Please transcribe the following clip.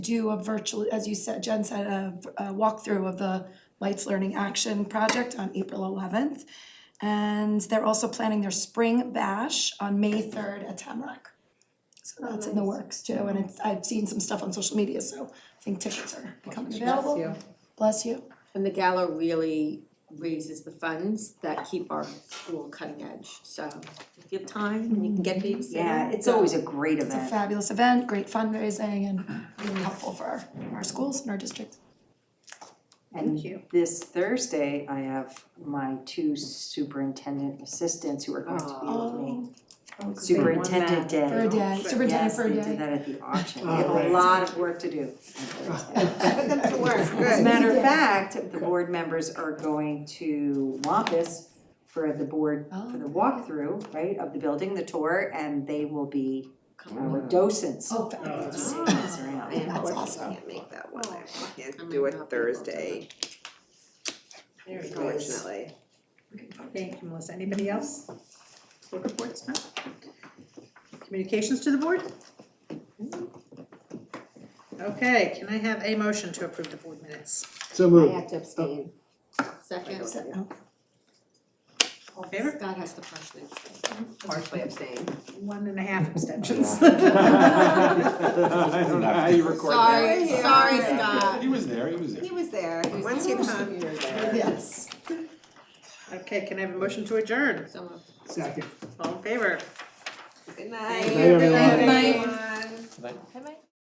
do a virtual, as you said, Jen said, a, a walkthrough of the Lights Learning Action Project on April eleventh. And they're also planning their spring bash on May third at Tamrock. So that's in the works too, and it's, I've seen some stuff on social media, so I think tickets are becoming available. you. Bless you. And the gala really raises the funds that keep our school cutting edge, so if you have time and you can get babysitting. Yeah, it's always a great It's a event. fabulous event, great fundraising and really helpful for our, our schools and our district. And this Thursday, I have my two superintendent assistants who are going to be Oh, with me. Superintendent Day. For a day, superintendent Yes, for a they did day. that at the auction. We have Oh, a right. lot of work to do. That's As a matter of fact, the board members are going to Wampus for the board, for Oh, the walkthrough, right, of the building, the tour, and they will be our docents. Oh, fabulous. Just seeing us around. That's awesome. Can't make that one, I can't do it Thursday, There it goes. unfortunately. Thank you, Melissa. Anybody else? Board reports, no? Communications to the board? Okay, can I have a motion to approve the board minutes? So moved. to abstain. Second, So, all in favor? Scott has to partially, Partially abstain. one and a half abstentions. I don't know how you record that. Sorry, Yeah. sorry, Scott. He was there, he was there. was there, Once you come. you're Yes. Okay, can I have a motion to adjourn? So moved. Second. All in favor? Good night. Good night, everyone. everyone.